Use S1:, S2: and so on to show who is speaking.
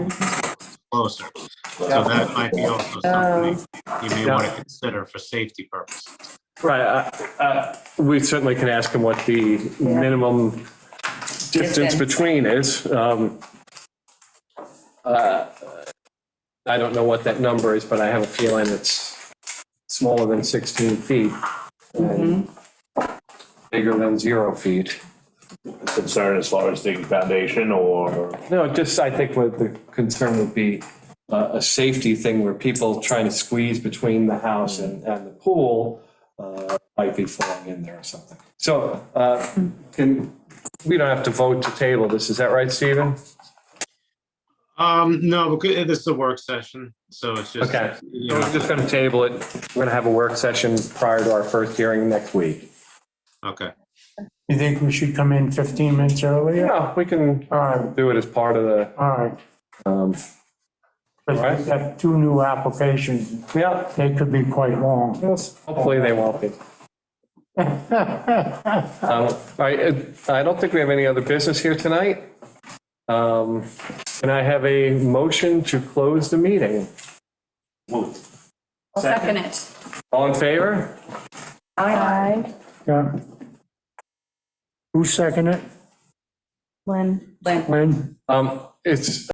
S1: closer. So that might be also something you may want to consider for safety purposes.
S2: Right, uh, uh, we certainly can ask him what the
S3: Yeah.
S2: minimum distance
S3: Distance.
S2: between is. Um, uh, I don't know what that number is, but I have a feeling it's smaller than 16 feet and
S3: Mm-hmm.
S2: bigger than zero feet.
S4: concern as far as the foundation or?
S2: No, just, I think what the concern would be uh, a safety thing where people trying to squeeze between the house and, and the pool uh, might be falling in there or something. So, uh, can, we don't have to vote to table this, is that right, Stephen?
S1: Um, no, because this is a work session, so it's just.
S2: Okay.
S1: you
S2: So
S1: know,
S2: We're just going to table it. We're going to have a work session prior to our first hearing next week.
S1: Okay,
S5: You think we should come in 15 minutes earlier?
S2: Yeah, we can
S5: All right,
S2: do it as part of the,
S5: all right.
S2: um,
S5: But we've got two new applications.
S2: yeah,
S5: They could be quite long.
S2: hopefully they won't be. Um, All right, uh, I don't think we have any other business here tonight. Um, Can I have a motion to close the meeting?
S3: I'll second it.
S2: All in favor?
S3: Aye.
S5: Yeah. Who seconded it?
S3: Lynn. Lynn.
S5: Lynn?
S2: Um, It's